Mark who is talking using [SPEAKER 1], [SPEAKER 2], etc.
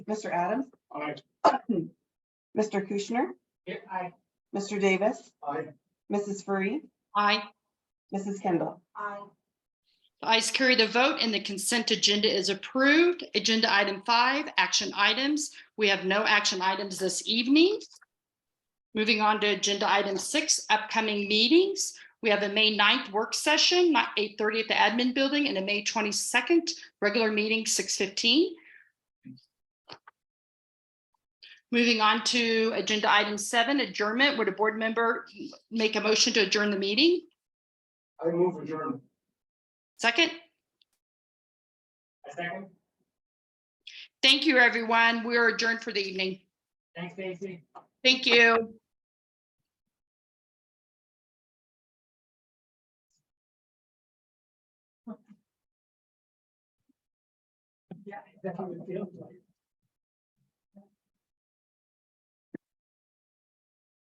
[SPEAKER 1] Mr. Adams,
[SPEAKER 2] Aye.
[SPEAKER 1] Mr. Kushner,
[SPEAKER 2] Aye.
[SPEAKER 1] Mr. Davis,
[SPEAKER 2] Aye.
[SPEAKER 1] Mrs. Free,
[SPEAKER 3] Aye.
[SPEAKER 1] Mrs. Kendall.
[SPEAKER 3] Aye. The ayes carry the vote and the consent agenda is approved. Agenda item five, action items. We have no action items this evening. Moving on to agenda item six, upcoming meetings. We have a May 9th work session, not eight thirty at the admin building, and a May twenty-second regular meeting, six fifteen. Moving on to agenda item seven, adjournment. Would a board member make a motion to adjourn the meeting?
[SPEAKER 2] I move adjourned.
[SPEAKER 3] Second?
[SPEAKER 2] I second.
[SPEAKER 3] Thank you, everyone. We are adjourned for the evening.
[SPEAKER 2] Thanks, Stacy.
[SPEAKER 3] Thank you.
[SPEAKER 2] Yeah, that's how it feels like.